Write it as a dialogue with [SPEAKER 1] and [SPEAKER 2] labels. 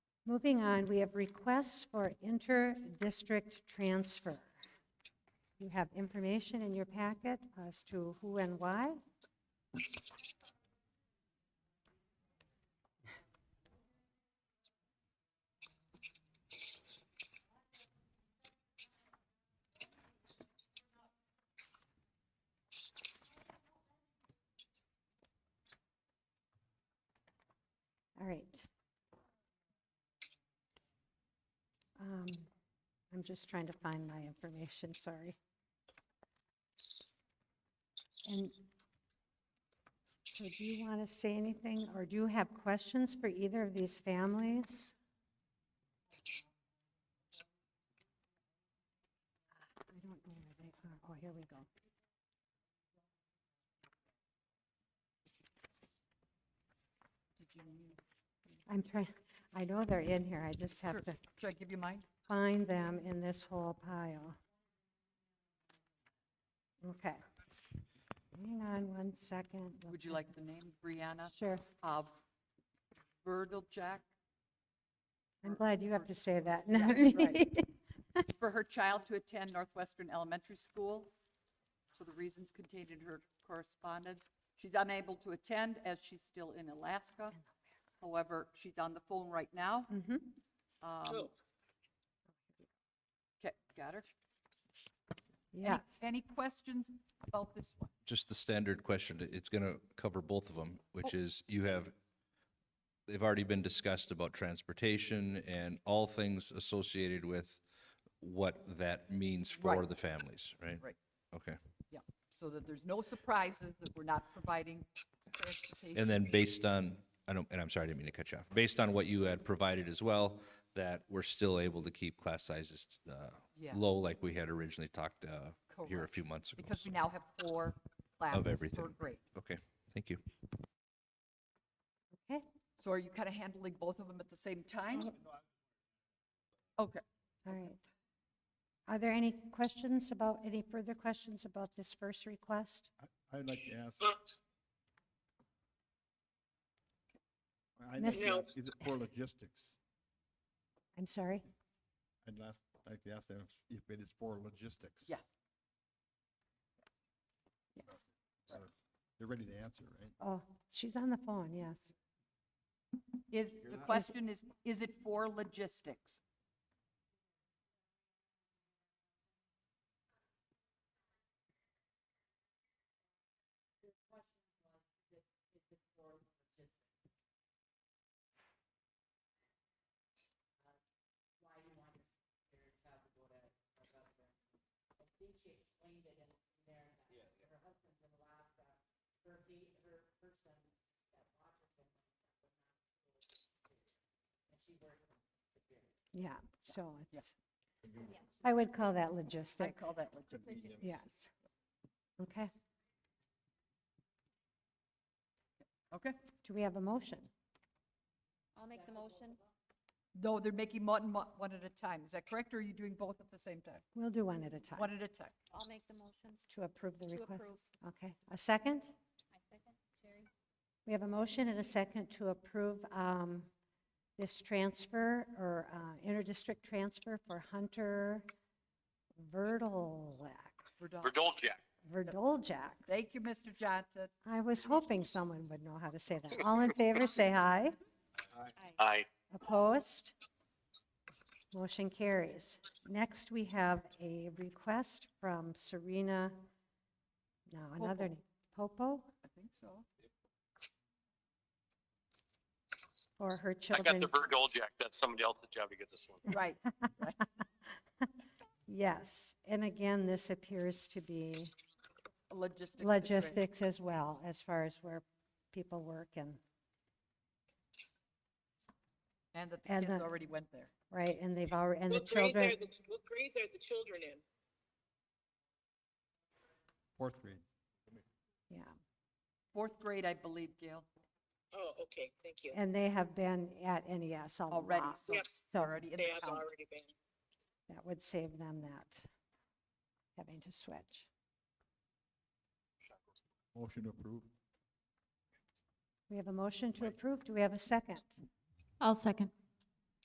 [SPEAKER 1] Moving on, we have requests for inter-district transfer. You have information in your packet as to who and why. All right. Um, I'm just trying to find my information, sorry. And so do you want to say anything, or do you have questions for either of these families? I don't know where they are. Oh, here we go. I'm trying, I know they're in here, I just have
[SPEAKER 2] Sure.
[SPEAKER 1] to
[SPEAKER 2] Should I give you mine?
[SPEAKER 1] find them in this whole pile. Okay. Hang on one second. We'll
[SPEAKER 2] Would you
[SPEAKER 1] find-
[SPEAKER 2] like the name? Brianna
[SPEAKER 1] Sure.
[SPEAKER 2] Jack
[SPEAKER 1] I'm
[SPEAKER 2] or-
[SPEAKER 1] glad you have
[SPEAKER 2] or-
[SPEAKER 1] to say that,
[SPEAKER 2] Yeah,
[SPEAKER 1] not
[SPEAKER 2] right.
[SPEAKER 1] me.
[SPEAKER 2] for her child to attend Northwestern Elementary School for the reasons contained in her correspondence. She's unable to attend as she's still in Alaska. However, she's on the phone right now.
[SPEAKER 1] Mhm.
[SPEAKER 2] Okay, got her? Any-
[SPEAKER 1] Yes.
[SPEAKER 2] Any questions about this one?
[SPEAKER 3] just the standard question, it- it's going to cover both of them,
[SPEAKER 2] Oh.
[SPEAKER 3] which is you have, they've already been discussed about transportation and all things associated with what that means for
[SPEAKER 2] Right.
[SPEAKER 3] the families, right?
[SPEAKER 2] Right.
[SPEAKER 3] Okay.
[SPEAKER 2] Yeah, so that there's no surprises, that we're not providing transportation.
[SPEAKER 3] And then based on, I don't, and I'm sorry, I didn't mean to cut you off. Based on what you had provided as well, that we're still able to keep class sizes uh,
[SPEAKER 2] Yeah.
[SPEAKER 3] low like we had originally talked uh, here a few
[SPEAKER 2] Correct.
[SPEAKER 3] months ago.
[SPEAKER 2] Because we
[SPEAKER 3] so-
[SPEAKER 2] now have four classes per
[SPEAKER 3] everything.
[SPEAKER 2] grade.
[SPEAKER 3] Okay, thank you.
[SPEAKER 1] Okay,
[SPEAKER 2] So are you kind of handling both of them at the same time?
[SPEAKER 1] Um,
[SPEAKER 2] Okay,
[SPEAKER 1] all right. Are there any questions about, any further questions about this first request?
[SPEAKER 4] I- I'd like to ask. I'd like
[SPEAKER 1] Miss-
[SPEAKER 4] to ask, Is it for logistics?
[SPEAKER 1] I'm sorry.
[SPEAKER 4] I'd last, like to ask them if it is for logistics.
[SPEAKER 2] yes.
[SPEAKER 4] They're ready to answer, right?
[SPEAKER 1] Oh, she's on the phone, yes.
[SPEAKER 2] Is, the question is, is it for logistics?
[SPEAKER 1] Yeah, so
[SPEAKER 2] Yeah.
[SPEAKER 1] it's, I would call that logistics.
[SPEAKER 2] I call that logistics.
[SPEAKER 1] Yes. Okay,
[SPEAKER 2] Okay.
[SPEAKER 1] do we have a motion?
[SPEAKER 5] I'll make the motion.
[SPEAKER 2] No, they're making one, mo- one at a time. Is that correct, or are you doing both at the same time?
[SPEAKER 1] We'll do one at a time.
[SPEAKER 2] One at a time.
[SPEAKER 5] I'll make the motion
[SPEAKER 1] To approve the
[SPEAKER 5] to
[SPEAKER 1] request?
[SPEAKER 5] approve.
[SPEAKER 1] Okay, a second?
[SPEAKER 5] I second, Jerry.
[SPEAKER 1] We have a motion and a second to approve um, this transfer or uh, interdistrict transfer for Hunter Verdolak,
[SPEAKER 2] We're done.
[SPEAKER 6] Verdoljak.
[SPEAKER 1] Verdoljak.
[SPEAKER 2] Thank you, Mr. Johnson.
[SPEAKER 1] I was hoping someone would know how to say that. All in favor, say aye.
[SPEAKER 6] Aye.
[SPEAKER 1] Opposed? Motion carries. Next, we have a request from Serena, no, another,
[SPEAKER 2] Popo.
[SPEAKER 1] name, Popo,
[SPEAKER 2] I think so.
[SPEAKER 1] for her
[SPEAKER 6] I got
[SPEAKER 1] children.
[SPEAKER 6] the Verdoljak. That's somebody else's job to get this one.
[SPEAKER 2] Right.
[SPEAKER 1] Yes, and again, this appears to be
[SPEAKER 2] Logistics. situation.
[SPEAKER 1] logistics as well, as far as where people work and,
[SPEAKER 2] And that the
[SPEAKER 1] and
[SPEAKER 2] kids
[SPEAKER 1] the-
[SPEAKER 2] already went there.
[SPEAKER 1] right, and they've already, and the
[SPEAKER 7] What grades
[SPEAKER 1] children,
[SPEAKER 7] are the, ch- what grades are the children in?
[SPEAKER 4] Fourth grade.
[SPEAKER 1] yeah.
[SPEAKER 2] Fourth grade, I believe, Gail,
[SPEAKER 7] Oh, okay, thank you.
[SPEAKER 1] And they have been at NES a
[SPEAKER 2] already,
[SPEAKER 1] lot.
[SPEAKER 2] so
[SPEAKER 7] Yes.
[SPEAKER 2] it's already in the
[SPEAKER 7] They have
[SPEAKER 2] county.
[SPEAKER 7] already been.
[SPEAKER 1] That would save them that, having to switch.
[SPEAKER 4] Motion approved.
[SPEAKER 1] We have a motion to approve. Do we have a second?
[SPEAKER 5] I'll second.